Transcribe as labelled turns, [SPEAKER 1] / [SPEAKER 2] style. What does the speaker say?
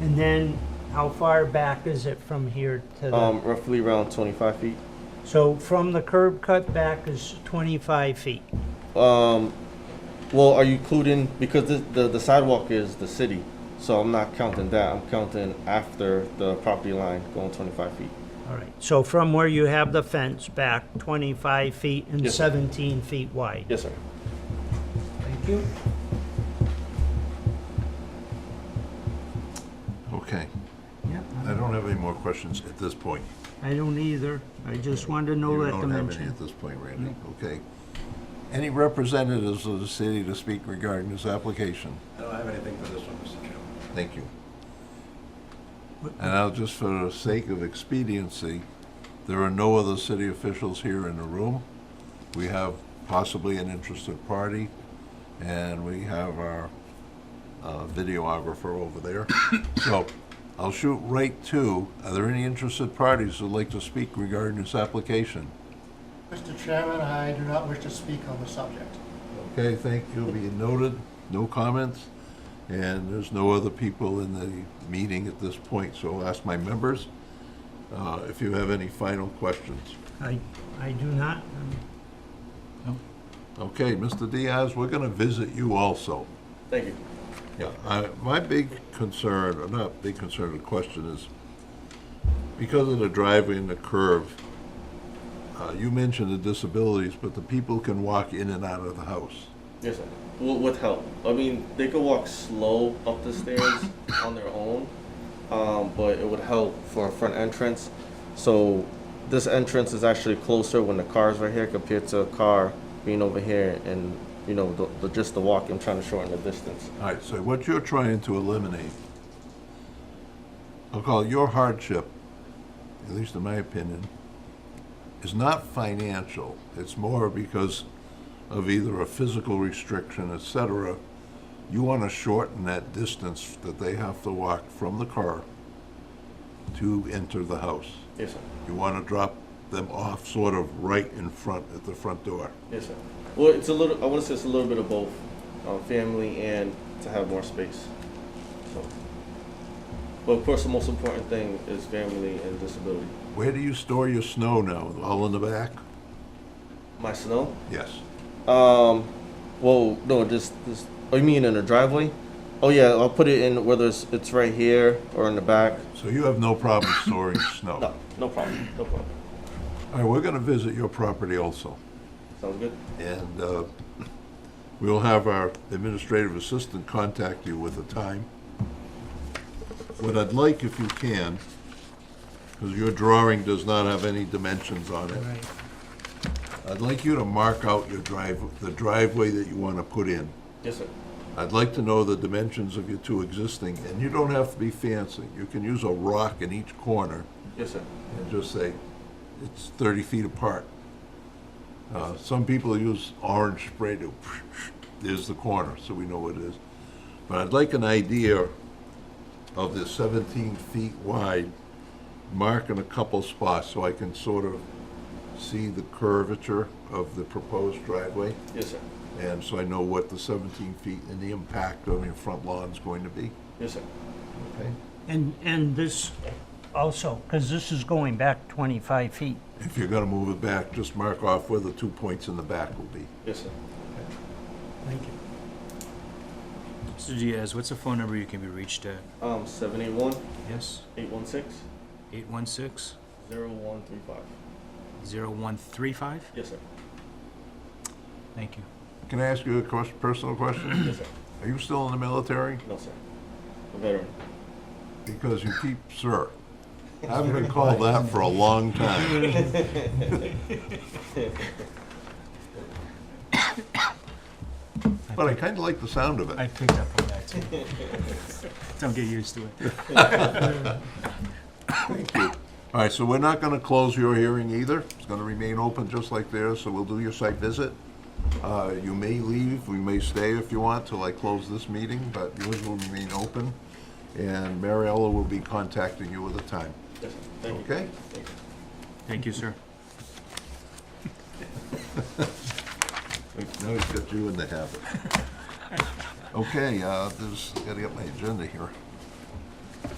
[SPEAKER 1] And then how far back is it from here to the,
[SPEAKER 2] Um, roughly around 25 feet.
[SPEAKER 1] so from the curb cut back is 25 feet?
[SPEAKER 2] Um, well, are you including, because the, the, the sidewalk is the city, so I'm not counting that. I'm counting after the property line going 25 feet.
[SPEAKER 1] All right, so from where you have the fence back 25 feet and
[SPEAKER 2] Yes, sir.
[SPEAKER 1] 17 feet wide?
[SPEAKER 2] Yes, sir.
[SPEAKER 1] Thank you.
[SPEAKER 3] Okay,
[SPEAKER 1] Yep,
[SPEAKER 3] I don't have any more questions at this point.
[SPEAKER 1] I don't either. I just wanted to know that
[SPEAKER 3] You don't have any
[SPEAKER 1] dimension.
[SPEAKER 3] at this point, Randy, okay. Any representatives of the city to speak regarding this application?
[SPEAKER 4] I don't have anything for this one, Mr. Chairman.
[SPEAKER 3] Thank you. And I'll, just for the sake of expediency, there are no other city officials here in the room. We have possibly an interested party, and we have our uh, videographer over there. So I'll shoot right to, are there any interested parties who'd like to speak regarding this application?
[SPEAKER 5] Mr. Chairman, I do not wish to speak on the subject.
[SPEAKER 3] Okay, thank you, be noted, no comments, and there's no other people in the meeting at this point, so I'll ask my members uh, if you have any final questions.
[SPEAKER 1] I, I do not, um,
[SPEAKER 3] Okay, Mr. Diaz, we're gonna visit you also.
[SPEAKER 2] Thank you.
[SPEAKER 3] Yeah, I, my big concern, or not big concern, the question is, because of the driveway and the curve, uh, you mentioned the disabilities, but the people can walk in and out of the house.
[SPEAKER 2] Yes, sir. W- with help. I mean, they could walk slow up the stairs on their own, um, but it would help for a front entrance. So this entrance is actually closer when the car's right here compared to a car being over here and, you know, the, the, just the walk. I'm trying to shorten the distance.
[SPEAKER 3] All right, so what you're trying to eliminate, I'll call it your hardship, at least in my opinion, is not financial. It's more because of either a physical restriction, et cetera. You want to shorten that distance that they have to walk from the car to enter the house.
[SPEAKER 2] Yes, sir.
[SPEAKER 3] You want to drop them off sort of right in front, at the front door.
[SPEAKER 2] Yes, sir. Well, it's a little, I want to say it's a little bit of both, um, family and to have more space. So, but of course, the most important thing is family and disability.
[SPEAKER 3] Where do you store your snow now? All in the back?
[SPEAKER 2] My snow?
[SPEAKER 3] Yes.
[SPEAKER 2] Um, well, no, just this. Oh, you mean in the driveway? Oh yeah, I'll put it in whether it's, it's right here or in the back.
[SPEAKER 3] So you have no problem storing snow?
[SPEAKER 2] No, no problem, no problem.
[SPEAKER 3] All right, we're going to visit your property also,
[SPEAKER 2] Sounds good.
[SPEAKER 3] and uh, we'll have our administrative assistant contact you with a time. What I'd like, if you can, because your drawing does not have any dimensions on
[SPEAKER 1] all
[SPEAKER 3] it,
[SPEAKER 1] right.
[SPEAKER 3] I'd like you to mark out your drive, the driveway that you want to put in.
[SPEAKER 2] Yes, sir.
[SPEAKER 3] I'd like to know the dimensions of your two existing, and you don't have to be fancy. You can use a rock in each corner,
[SPEAKER 2] Yes, sir.
[SPEAKER 3] and just say, it's 30 feet apart. Uh, Some people use orange spray to, there's the corner, so we know what it is. But I'd like an idea of the 17 feet wide, mark in a couple spots so I can sort of see the curvature of the proposed driveway,
[SPEAKER 2] Yes, sir.
[SPEAKER 3] and so I know what the 17 feet and the impact on your front lawn's going to be,
[SPEAKER 2] Yes, sir.
[SPEAKER 3] okay?
[SPEAKER 1] And, and this also, because this is going back 25 feet.
[SPEAKER 3] If you're gonna move it back, just mark off where the two points in the back will be.
[SPEAKER 2] Yes, sir.
[SPEAKER 1] Thank you.
[SPEAKER 6] Mr. Diaz, what's the phone number you can be reached at?
[SPEAKER 2] Um, seven eight one
[SPEAKER 6] Yes?
[SPEAKER 2] eight one six
[SPEAKER 6] 816
[SPEAKER 2] zero one three five.
[SPEAKER 6] 0135?
[SPEAKER 2] Yes, sir.
[SPEAKER 6] Thank you.
[SPEAKER 3] Can I ask you a ques- personal question?
[SPEAKER 2] Yes, sir.
[SPEAKER 3] Are you still in the military?
[SPEAKER 2] No, sir. A veteran.
[SPEAKER 3] Because you keep sir. I haven't been called that for a long time. But I kind of like the sound of
[SPEAKER 6] I
[SPEAKER 3] it.
[SPEAKER 6] picked up on that too. Don't get used to it.
[SPEAKER 3] All right, so we're not going to close your hearing either. It's going to remain open just like theirs, so we'll do your site visit. Uh, You may leave, we may stay if you want till I close this meeting, but yours will remain open. And Mariella will be contacting you with a time,
[SPEAKER 2] Yes, sir. Thank you.
[SPEAKER 3] okay?
[SPEAKER 6] Thank you, sir.
[SPEAKER 3] Now he's got you in the habit. Okay, uh, this, gotta get my agenda here.